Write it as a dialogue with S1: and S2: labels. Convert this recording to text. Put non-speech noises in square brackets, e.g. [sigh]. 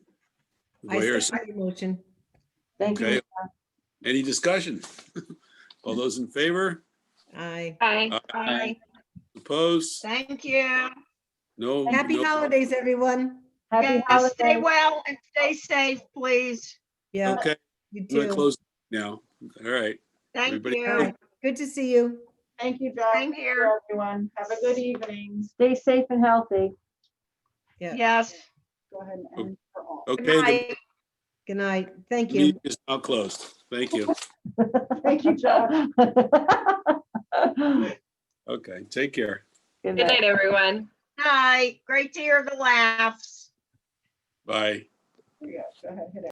S1: Do I hear a second?
S2: second the motion.
S3: Thank
S1: Okay.
S3: you.
S1: Any discussion? [laughs] All those in favor?
S2: Aye.
S4: Aye.
S1: Aye. Opposed?
S4: Thank you.
S1: No.
S2: Happy
S1: no.
S2: holidays, everyone.
S3: Happy
S4: And Stay
S3: holidays.
S4: well and stay safe, please.
S2: Yeah,
S1: Okay,
S2: uh, you
S1: I'm gonna
S2: too.
S1: close now. All right.
S4: Thank
S1: Everybody-
S4: you.
S2: Good to see you.
S5: Thank you, Doug.
S4: Same
S5: Thank
S4: here.
S5: you, everyone. Have a good evening.
S3: Stay safe and healthy.
S2: Yeah.
S4: Yes.
S5: Go ahead and
S3: [laughs]
S5: end for all.
S4: Good
S1: Okay,
S4: night.
S2: Good night. Thank
S1: the
S2: you.
S1: meeting is now closed. Thank you.
S5: Thank you,
S3: [laughs]
S5: Doug.
S1: Okay, take care.
S3: Good
S6: Good
S3: night.
S6: night, everyone.
S4: Night. Great to hear the laughs.
S1: Bye.
S5: Yeah, go ahead, hit it.